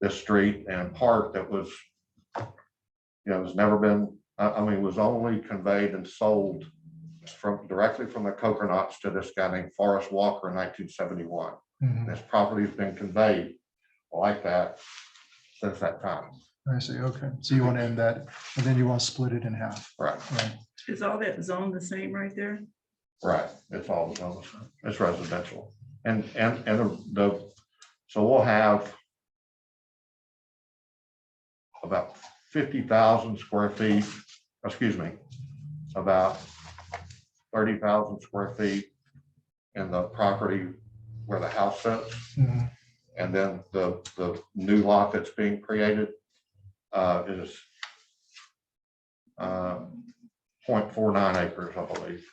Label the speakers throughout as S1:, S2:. S1: this street and park that was, you know, has never been, I, I mean, was only conveyed and sold from, directly from the Coconuts to this guy named Forrest Walker in nineteen seventy-one.
S2: Mhm.
S1: This property's been conveyed like that since that time.
S2: I see, okay. So you want to end that, and then you want to split it in half.
S1: Right,
S2: Right.
S3: Is all that zone the same right there?
S1: right. It's all, zoned. it's residential. And, and, and the, so we'll have about fifty thousand square feet, excuse me, about thirty thousand square feet in the property where the house sits.
S2: Mhm.
S1: And then the, the new lot that's being created uh, is uh, point four nine acres, I believe.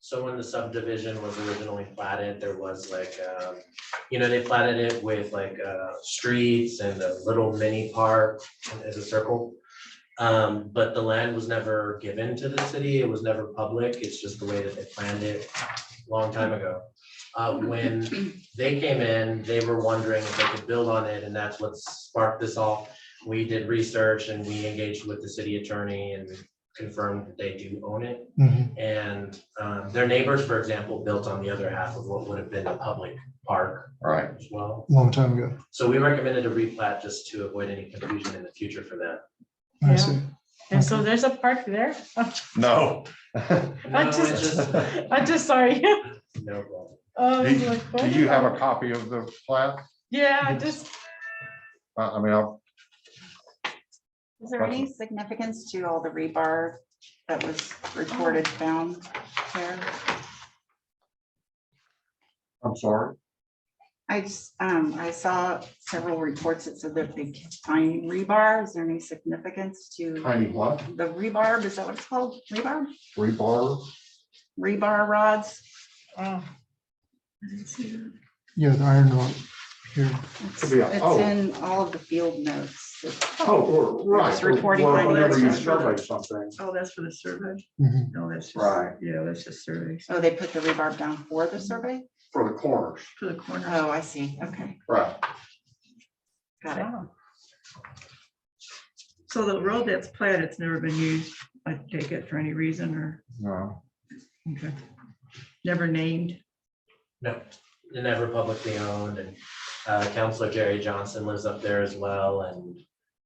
S4: So when the subdivision was originally platted, there was like, um, you know, they platted it with like uh, streets and a little mini park as a circle. Um, But the land was never given to the city. It was never public. It's just the way that they planned it long time ago. Uh, When they came in, they were wondering if they could build on it, and that's what sparked this all. We did research and we engaged with the city attorney and confirmed that they do own it.
S2: Mhm.
S4: And um, their neighbors, for example, built on the other half of what would have been a public park
S1: Right.
S4: as well.
S2: Long time ago.
S4: So we recommended a replat just to avoid any confusion in the future for that.
S2: I
S3: Yeah.
S2: see.
S3: And so there's a park there.
S1: No.
S4: No, it's
S3: just-
S4: just-
S3: I just saw you.
S4: no problem.
S3: Oh,
S1: Do
S3: I was like,
S1: do you have a copy of the plat?
S3: Yeah, I just,
S1: I I mean, I'll-
S5: Is there any significance to all the rebar that was reported found there?
S1: I'm sorry.
S5: I just, um, I saw several reports that said that they find rebar. Is there any significance to
S1: Tiny what?
S5: the rebar? Is that what it's called? Rebar?
S1: Rebar?
S5: Rebar rods?
S3: oh,
S2: Yeah, the iron rod here.
S5: It's
S1: Could be a-
S5: it's
S1: oh.
S5: in all of the field notes. It's-
S1: Oh,
S5: right. It's reporting
S1: Well,
S5: by
S1: Whenever you
S5: notice.
S1: survey something.
S3: oh, that's for the survey.
S2: Mhm.
S3: No, that's just,
S1: Right.
S3: yeah, that's just surveys
S5: Oh, they put the rebar down for the survey?
S1: For the corners.
S3: for the corner.
S5: Oh, I see. Okay,
S1: Right.
S6: Oh,
S5: got it.
S3: So the road that's platted, it's never been used, I take it for any reason or,
S1: No.
S3: okay. Never named.
S4: No, they're never publicly owned and uh, Counselor Jerry Johnson lives up there as well and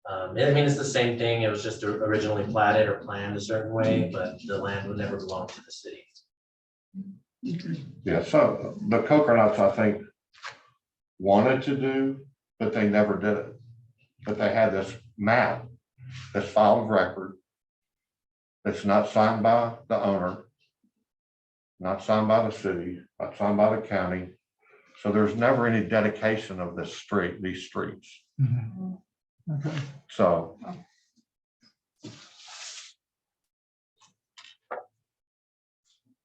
S4: um, I mean, it's the same thing. It was just originally platted or planned a certain way, but the land would never belong to the city.
S3: Okay.
S1: Yeah, so the Coconuts, I think, wanted to do, but they never did it. But they had this map, this file of record. That's not signed by the owner. Not signed by the city, not signed by the county. So there's never any dedication of this street, these streets.
S2: Mhm. Okay.
S1: So.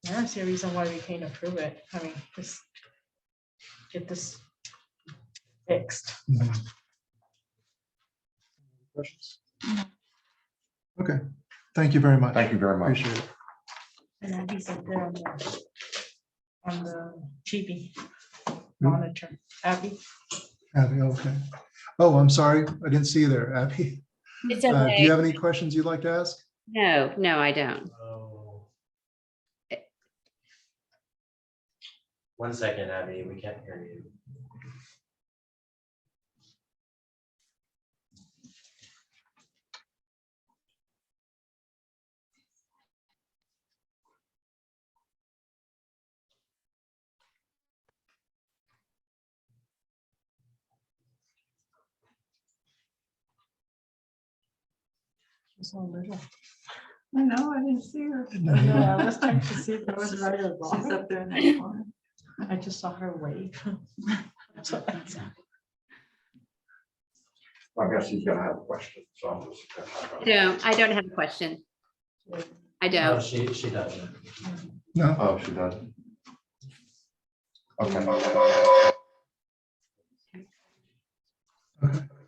S6: I don't see a reason why we can't approve it. I mean, just get this fixed.
S2: Mhm. Questions? Okay, thank you very much.
S1: Thank you very much.
S2: Appreciate it.
S6: And I'll be sent there on the, on the GB monitor. Abby?
S2: Abby, okay. Oh, I'm sorry. I didn't see you there, Abby.
S7: It's
S2: Uh, Do you
S7: okay.
S2: have any questions you'd like to ask?
S7: No, no, I don't.
S4: Oh. One second, Abby, we can't hear you.
S6: She's so little.
S3: I know, I didn't see her.
S2: No, you
S6: No,
S2: don't.
S6: I was trying to see if there was right or
S3: She's
S6: wrong.
S3: up there in that corner.
S6: I just saw her wave. That's what I saw.
S1: I guess he's gonna have a question, so I'm just.
S7: No, I don't have a question. I
S4: No,
S7: don't.
S4: she, she doesn't.
S2: No,
S1: Oh, she doesn't. Okay.
S2: okay.